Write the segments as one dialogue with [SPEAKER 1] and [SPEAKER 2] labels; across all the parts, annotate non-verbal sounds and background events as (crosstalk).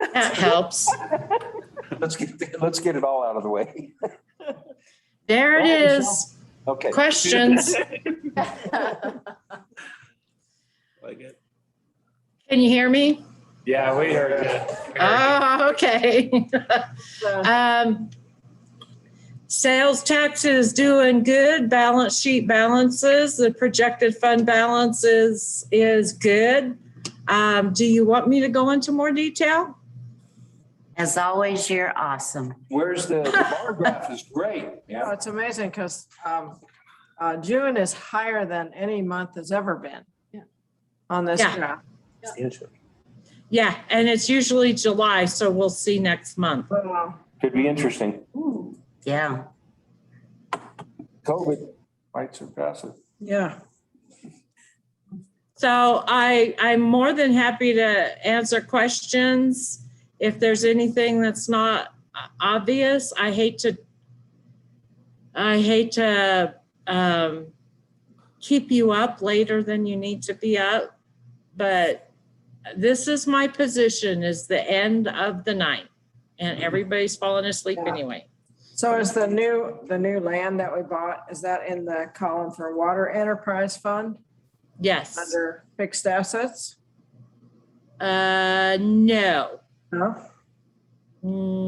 [SPEAKER 1] That helps.
[SPEAKER 2] Let's get, let's get it all out of the way.
[SPEAKER 1] There it
[SPEAKER 2] Well,
[SPEAKER 1] is.
[SPEAKER 2] Okay.
[SPEAKER 1] Questions?
[SPEAKER 3] Like it.
[SPEAKER 1] Can you hear me?
[SPEAKER 3] Yeah, we heard it.
[SPEAKER 1] Oh, okay.
[SPEAKER 4] So,
[SPEAKER 1] (laughs) Um, Sales tax is doing good. Balance sheet balances, the projected fund balance is, is good. Um, do you want me to go into more detail?
[SPEAKER 5] As always, you're awesome.
[SPEAKER 2] Where's the, the bar graph is great.
[SPEAKER 4] oh, It's amazing because June is higher than any month has ever been on this
[SPEAKER 1] Yeah.
[SPEAKER 4] graph.
[SPEAKER 1] Yeah, and it's usually July, so we'll see next month.
[SPEAKER 4] Oh, Wow.
[SPEAKER 2] Could be interesting.
[SPEAKER 5] Yeah.
[SPEAKER 2] COVID might surpass it.
[SPEAKER 4] Yeah.
[SPEAKER 1] So I, I'm more than happy to answer questions. If there's anything that's not o- obvious, I hate to, I hate to um, keep you up later than you need to be up. But this is my position is the end of the night and everybody's falling asleep
[SPEAKER 4] Yeah.
[SPEAKER 1] anyway.
[SPEAKER 4] So is the new, the new land that we bought, is that in the column for water enterprise fund
[SPEAKER 1] Yes.
[SPEAKER 4] under fixed assets?
[SPEAKER 1] Uh, no.
[SPEAKER 4] No?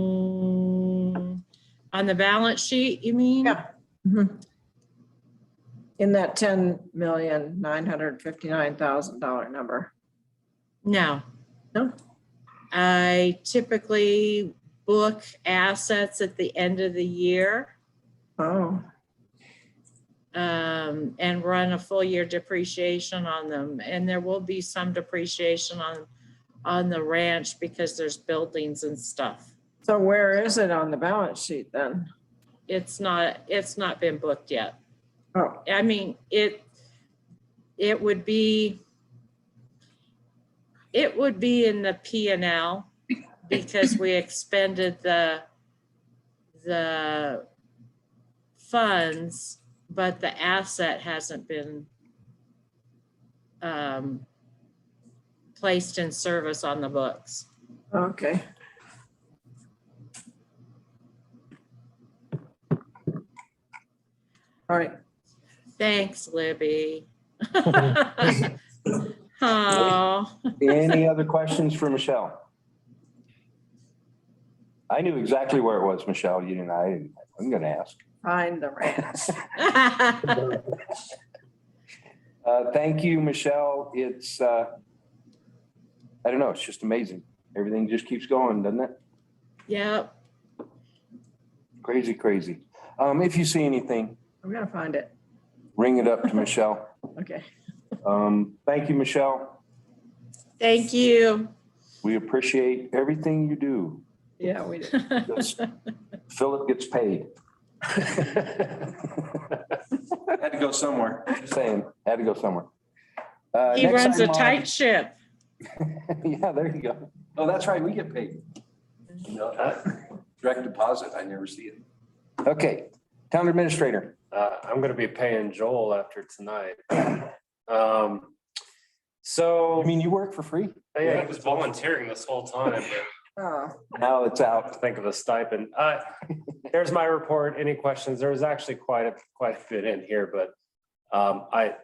[SPEAKER 1] Mm, On the balance sheet, you mean?
[SPEAKER 4] Yeah. Mhm. In that ten million, nine hundred fifty-nine thousand dollar number.
[SPEAKER 1] No.
[SPEAKER 4] No?
[SPEAKER 1] I typically book assets at the end of the year
[SPEAKER 4] Oh,
[SPEAKER 1] um, and run a full year depreciation on them. And there will be some depreciation on, on the ranch because there's buildings and stuff.
[SPEAKER 4] so where is it on the balance sheet then?
[SPEAKER 1] It's not, it's not been booked yet.
[SPEAKER 4] Oh,
[SPEAKER 1] I mean, it, it would be, it would be in the P and L because we expended the, the funds, but the asset hasn't been um, placed in service on the books.
[SPEAKER 4] okay. All right,
[SPEAKER 1] Thanks, Libby. (laughs) Oh.
[SPEAKER 2] Any other questions for Michelle? I knew exactly where it was, Michelle. You didn't, I, didn't- I'm gonna ask.
[SPEAKER 4] find the ranch.
[SPEAKER 2] Uh, thank you, Michelle. It's, uh, I don't know, it's just amazing. Everything just keeps going, doesn't it?
[SPEAKER 1] (laughs) Yep,
[SPEAKER 2] Crazy, crazy. Um, if you see anything,
[SPEAKER 4] I'm gonna find it.
[SPEAKER 2] ring it up to Michelle.
[SPEAKER 4] Okay.
[SPEAKER 2] Um, thank you, Michelle.
[SPEAKER 1] thank you.
[SPEAKER 2] We appreciate everything you do.
[SPEAKER 4] Yeah, we did.
[SPEAKER 1] (laughs)
[SPEAKER 2] Just Philip gets paid.
[SPEAKER 3] (laughs)
[SPEAKER 2] Had to go somewhere. Just Saying, had to go somewhere. Uh,
[SPEAKER 1] He
[SPEAKER 2] next
[SPEAKER 1] runs a
[SPEAKER 2] item on-
[SPEAKER 1] tight ship.
[SPEAKER 2] (laughs) Yeah, there you go. Oh, that's right, we get paid. No, uh, Direct deposit, I never see it. Okay, town administrator.
[SPEAKER 3] Uh, I'm gonna be paying Joel after tonight. Um, so,
[SPEAKER 2] I mean, you work for free?
[SPEAKER 3] yeah, he was volunteering this whole time, but
[SPEAKER 4] Oh,
[SPEAKER 2] Now it's
[SPEAKER 3] I have
[SPEAKER 2] out.
[SPEAKER 3] to think of a stipend. Uh, (laughs) there's my report. Any questions? There was actually quite a, quite a bit in here, but um, I, I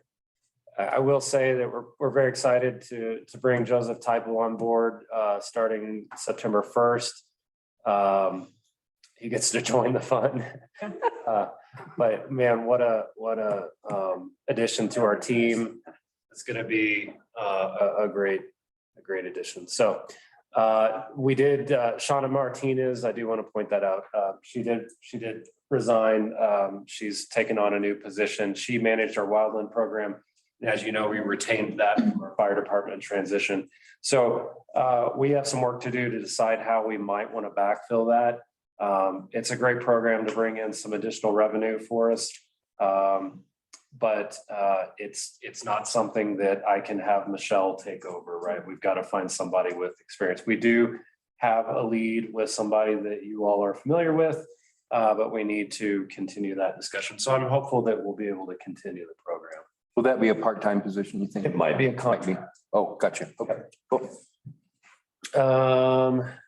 [SPEAKER 3] I will say that we're, we're very excited to, to bring Joseph Typel on board, uh, starting September first. Um, he gets to (laughs) join the fun. Uh, But man, what a, what a, um, addition to our team. It's gonna be, uh, a, a great, a great addition. So, uh, we did, uh, Shauna Martinez, I do want to point that out. Uh, she did, she did resign. Um, she's taken on a new position. She managed our wildland program. And as you know, we retained that from our fire department transition. So, uh, we have some work to do to decide how we might want to backfill that. Um, it's a great program to bring in some additional revenue for us. Um, but, uh, it's, it's not something that I can have Michelle take over, right? We've got to find somebody with experience. We do have a lead with somebody that you all are familiar with, uh, but we need to continue that discussion. So I'm hopeful that we'll be able to continue the program.
[SPEAKER 2] Will that be a part-time position, you think? Oh,
[SPEAKER 3] It might be a
[SPEAKER 2] Might be.
[SPEAKER 3] contract.
[SPEAKER 2] Oh, gotcha. Okay, cool.
[SPEAKER 3] Um,